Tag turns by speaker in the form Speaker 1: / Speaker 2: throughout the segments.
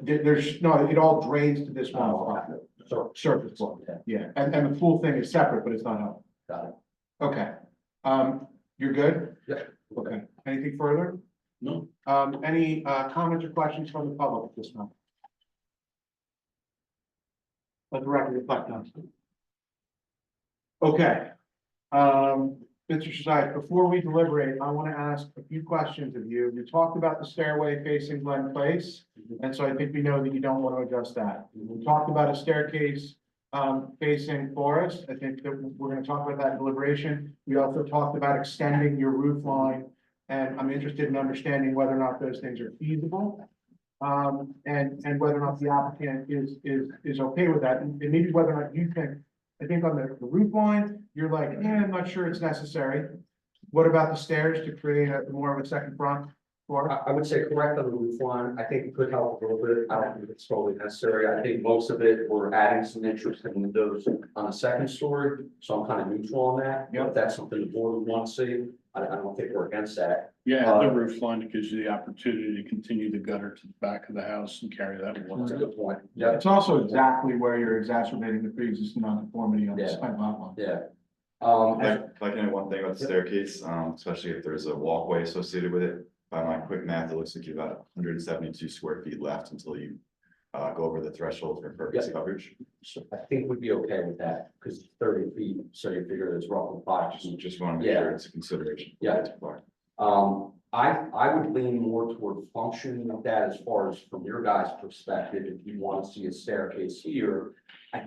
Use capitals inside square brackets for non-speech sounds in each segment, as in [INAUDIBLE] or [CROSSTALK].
Speaker 1: there- there's, no, it all drains to this one
Speaker 2: Oh,
Speaker 1: lot,
Speaker 2: So,
Speaker 1: surface lot, yeah, and, and the pool thing is separate, but it's not out.
Speaker 2: got it.
Speaker 1: Okay, um, you're good?
Speaker 2: Yeah.
Speaker 1: Okay, anything further?
Speaker 2: No.
Speaker 1: Um, any, uh, comments or questions from the public at this moment? Let the record reflect on. Okay, um, Mr. Shazai, before we deliberate, I want to ask a few questions of you. You talked about the stairway facing Glen Place, and so I think we know that you don't want to adjust that. We talked about a staircase um, facing Forest. I think that we're gonna talk about that in deliberation. We also talked about extending your roof line. And I'm interested in understanding whether or not those things are feasible. Um, and, and whether or not the applicant is, is, is okay with that, and and maybe whether or not you think. I think on the the roof line, you're like, yeah, I'm not sure it's necessary. What about the stairs to create a more of a second front
Speaker 2: I,
Speaker 1: floor?
Speaker 2: I would say correct on the roof line, I think it could help a little bit, I don't think it's totally necessary, I think most of it, we're adding some interesting windows on the second story, so I'm kind of neutral on that.
Speaker 1: Yep.
Speaker 2: If that's something the board would want to see, I, I don't think we're against that.
Speaker 3: Yeah,
Speaker 4: Uh,
Speaker 3: the roof line gives you the opportunity to continue the gutter to the back of the house and carry that
Speaker 2: That's a
Speaker 3: water.
Speaker 2: good point. Yeah,
Speaker 1: It's also exactly where you're exacerbating the pre-existing nonconformity on the side lot line.
Speaker 2: yeah. Um,
Speaker 5: If I- if I can add one thing about the staircase, um, especially if there's a walkway associated with it, by my quick math, it looks like you've got hundred and seventy-two square feet left until you. Uh, go over the threshold for impervious
Speaker 2: Yeah.
Speaker 5: coverage,
Speaker 2: So I think we'd be okay with that, because thirty feet, so you figure it's roughly five.
Speaker 5: just, just wanna make sure it's a consideration.
Speaker 2: Yeah. Um, I, I would lean more toward function of that as far as from your guys' perspective, if you want to see a staircase here. I,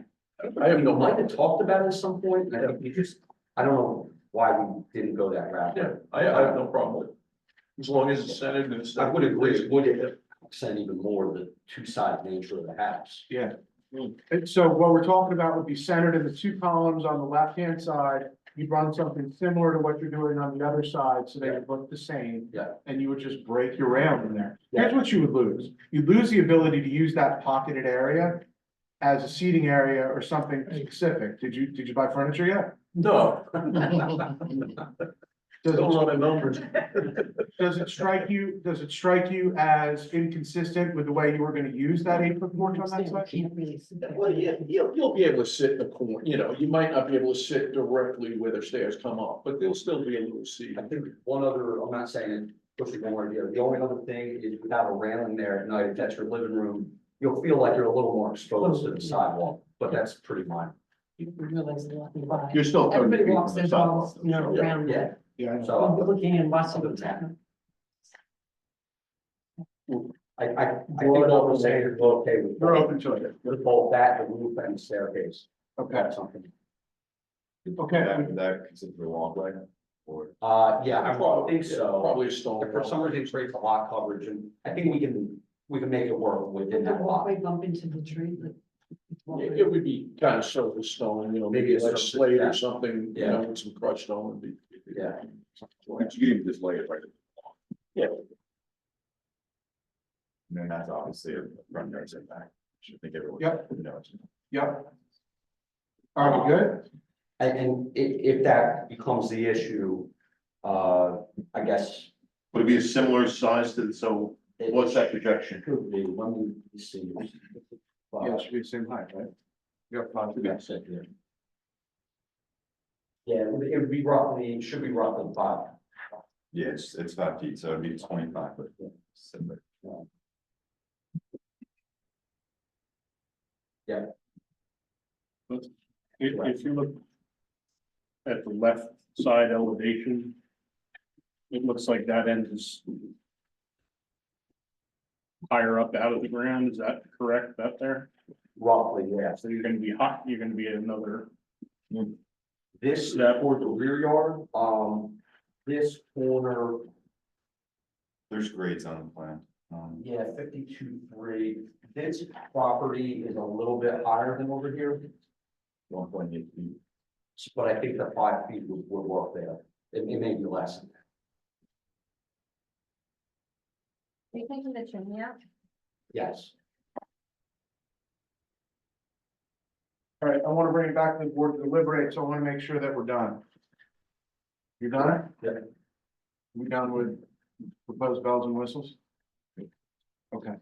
Speaker 2: I don't know, might have talked about it at some point, and I think we just, I don't know why we didn't go that route.
Speaker 4: Yeah, I, I have no problem with it. As long as it's centered and it's.
Speaker 2: I would agree, it would accent even more the two-sided nature of the house. [LAUGHS]
Speaker 1: And so what we're talking about would be centered in the two columns on the left-hand side. You'd run something similar to what you're doing on the other side, so they would look the same.
Speaker 2: Yeah.
Speaker 1: And you would just break your rail in there.
Speaker 2: Yeah.
Speaker 1: Here's what you would lose. You'd lose the ability to use that pocketed area as a seating area or something specific. Did you, did you buy furniture yet?
Speaker 4: No,
Speaker 1: Does
Speaker 4: don't
Speaker 1: it,
Speaker 4: run the numbers.
Speaker 1: does it strike you, does it strike you as inconsistent with the way you were gonna use that eight-foot porch on that side?
Speaker 6: Can't really sit there.
Speaker 4: Well, yeah, you'll, you'll be able to sit in the corner, you know, you might not be able to sit directly where the stairs come up, but there'll still be a little seat.
Speaker 2: I think one other, I'm not saying it pushes one way or the other, the only other thing is without a railing there at night, if that's your living room, you'll feel like you're a little more exposed to the sidewalk, but that's pretty minor.
Speaker 6: You realize a lot about it.
Speaker 4: You're still.
Speaker 6: Everybody walks their dogs, you know, around.
Speaker 2: Yeah,
Speaker 1: Yeah.
Speaker 2: so
Speaker 6: You're Looking and watching what's happening.
Speaker 2: I, I, I think what we're saying is we're okay with.
Speaker 1: We're open to it.
Speaker 2: With both that, the roof and the staircase,
Speaker 1: Okay,
Speaker 2: that's something.
Speaker 1: okay.
Speaker 5: That, that considered a walkway, or,
Speaker 2: Uh, yeah, I would think so.
Speaker 4: Probably a stone.
Speaker 2: If For some reason, it creates a lot of coverage, and I think we can, we can make it work within
Speaker 6: The
Speaker 2: that lot.
Speaker 6: walkway bump into the tree, like.
Speaker 4: It it would be kind of surface stone, you know,
Speaker 2: Maybe
Speaker 4: maybe
Speaker 2: it's
Speaker 4: like
Speaker 2: surface,
Speaker 4: slate
Speaker 2: yeah.
Speaker 4: or something, you
Speaker 2: Yeah.
Speaker 4: know, with some crushed stone would be.
Speaker 2: Yeah.
Speaker 4: You can even just lay it right.
Speaker 5: and then that's obviously a front yard setback, should think everyone.
Speaker 1: Yep.
Speaker 5: knows.
Speaker 1: Yep. Are we good?
Speaker 2: And, and i- if that becomes the issue, uh, I guess.
Speaker 7: Would it be a similar size to, so
Speaker 2: it-
Speaker 7: what's that projection?
Speaker 2: It could be, let me see.
Speaker 1: Yeah, it should be the same height, right? Yep,
Speaker 2: Yeah, it would- it would be roughly, it should be roughly five.
Speaker 5: Yeah, it's, it's five feet, so it'd be twenty-five, but similar.
Speaker 3: If, if you look at the left side elevation, it looks like that end is higher up out of the ground. Is that correct, that there?
Speaker 2: Roughly, yes.
Speaker 3: So you're gonna be hot, you're gonna be at another,
Speaker 2: This is for the rear yard, um, this corner,
Speaker 5: There's grades on the plan, um,
Speaker 2: yeah, fifty-two, three. This property is a little bit higher than over here.
Speaker 5: one point eight feet.
Speaker 2: But I think the five feet would, would work there. It, it may be less. than that.
Speaker 8: Are you taking the chimney out?
Speaker 2: Yes.
Speaker 1: All right, I want to bring it back to the board to deliberate, so I want to make sure that we're done. You done?
Speaker 2: Yeah.
Speaker 1: We done with proposed bells and whistles? Okay,